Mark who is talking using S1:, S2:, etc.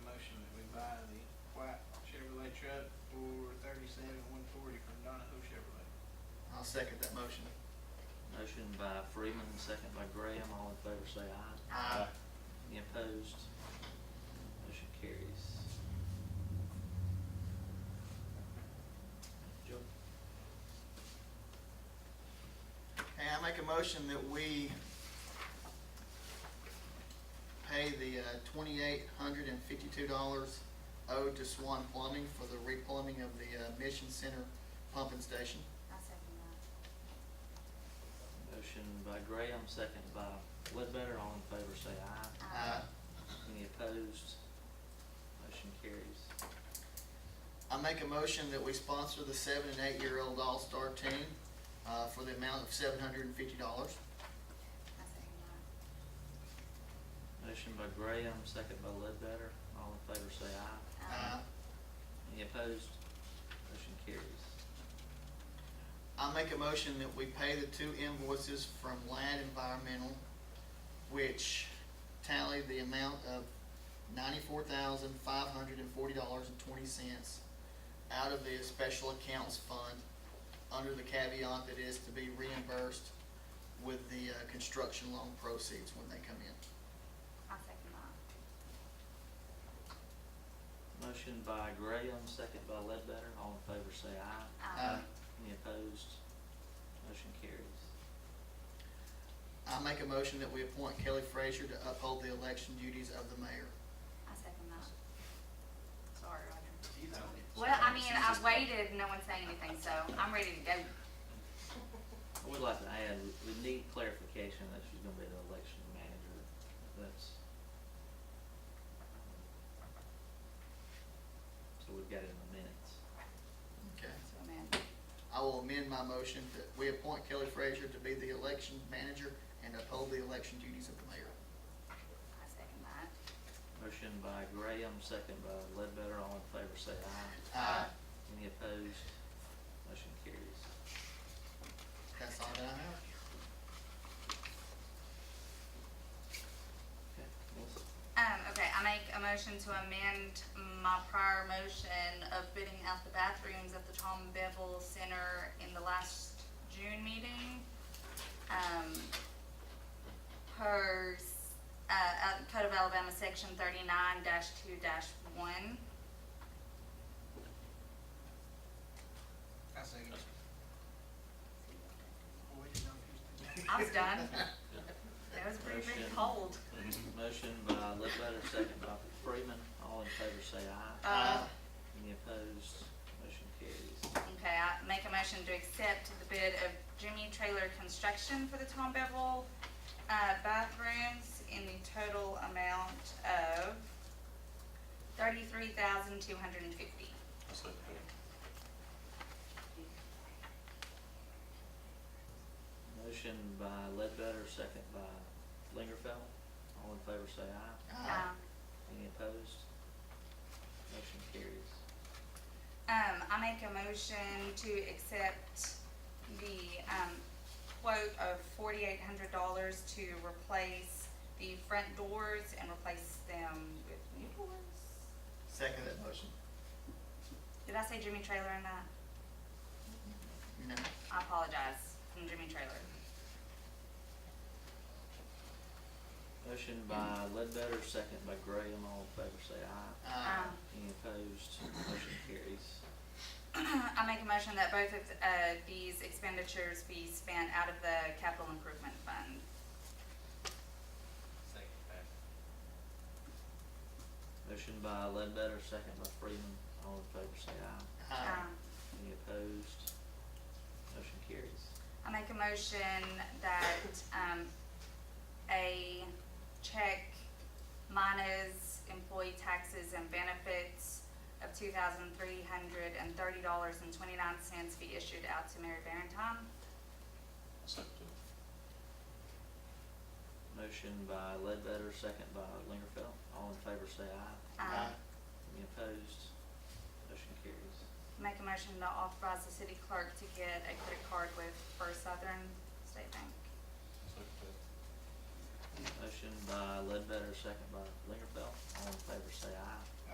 S1: seventy to one forty for Donahoe Chevrolet.
S2: I'll second that motion.
S3: Motion by Freeman, second by Graham, all in favor say aye.
S2: Aye.
S3: Any opposed? Motion carries. Joe?
S2: And I make a motion that we pay the uh, twenty-eight hundred and fifty-two dollars owed to Swan Plumbing for the replumbing of the uh, Mission Center pumping station.
S4: I second that.
S3: Motion by Graham, second by Ledbetter, all in favor say aye.
S2: Uh,
S3: Any opposed? Motion carries.
S2: I make a motion that we sponsor the seven and eight-year-old All-Star team uh, for the amount of seven hundred and fifty dollars.
S4: I second that.
S3: Motion by Graham, second by Ledbetter, all in favor say aye.
S4: Uh,
S3: Any opposed? Motion carries.
S2: I make a motion that we pay the two invoices from Lad Environmental, which tally the amount of ninety-four thousand, five hundred and forty dollars and twenty cents out of the special accounts fund, under the caveat that is to be reimbursed with the, uh, construction loan proceeds when they come in.
S4: I second that.
S3: Motion by Graham, second by Ledbetter, all in favor say aye.
S2: Uh,
S3: Any opposed? Motion carries.
S2: I make a motion that we appoint Kelly Frazier to uphold the election duties of the mayor.
S4: I second that. Sorry, Roger.
S1: He's on it.
S4: Well, I mean, I waited, no one said anything, so I'm ready to go.
S3: I would like to add, we we need clarification that she's gonna be the election manager. That's. So we've got it in the minutes.
S2: Okay.
S4: So, man,
S2: I will amend my motion that we appoint Kelly Frazier to be the election manager and uphold the election duties of the mayor.
S4: I second that.
S3: Motion by Graham, second by Ledbetter, all in favor say aye.
S2: Uh,
S3: Any opposed? Motion carries.
S2: That's all that I have.
S3: Okay, Melissa?
S4: Um, okay, I make a motion to amend my prior motion of bidding out the bathrooms at the Tom Bevel Center in the last June meeting. Um, per, s- uh, uh, Code of Alabama, section thirty-nine two one.
S1: I second it. Boy, you know who's the-
S4: I was done. That was pretty, pretty
S3: Motion.
S4: cold.
S3: Motion by Ledbetter, second by Freeman, all in favor say aye.
S4: Uh,
S3: Any opposed? Motion carries.
S4: Okay, I make a motion to accept the bid of Jimmy Trailer Construction for the Tom Bevel, uh, bathrooms in the total amount of thirty-three thousand two hundred and fifty.
S5: I second that.
S3: Motion by Ledbetter, second by Lingerfeld. All in favor say aye.
S2: Uh,
S4: Um,
S3: Any opposed? Motion carries.
S4: Um, I make a motion to accept the, um, quote of forty-eight hundred dollars to replace the front doors and replace them with new doors.
S2: Second that motion.
S4: Did I say Jimmy Trailer in that?
S2: No.
S4: I apologize, from Jimmy Trailer.
S3: Motion by Ledbetter, second by Graham. All in favor say aye.
S2: Uh,
S4: Um,
S3: Any opposed? Motion carries.
S4: I make a motion that both of, uh, these expenditures be spent out of the capital improvement fund.
S3: Motion by Ledbetter, second by Freeman. All in favor say aye.
S2: uh,
S4: Um,
S3: Any opposed? Motion carries.
S4: I make a motion that, um, a check minus employee taxes and benefits of two thousand three hundred and thirty dollars and twenty-nine cents be issued out to Mary Barrington.
S5: I second that.
S3: Motion by Ledbetter, second by Lingerfeld. All in favor say aye.
S2: uh,
S4: Um,
S3: Any opposed? Motion carries.
S4: make a motion to authorize the city clerk to get a credit card with First Southern State Bank.
S5: I second that.
S3: Motion by Ledbetter, second by Lingerfeld. All in favor say aye.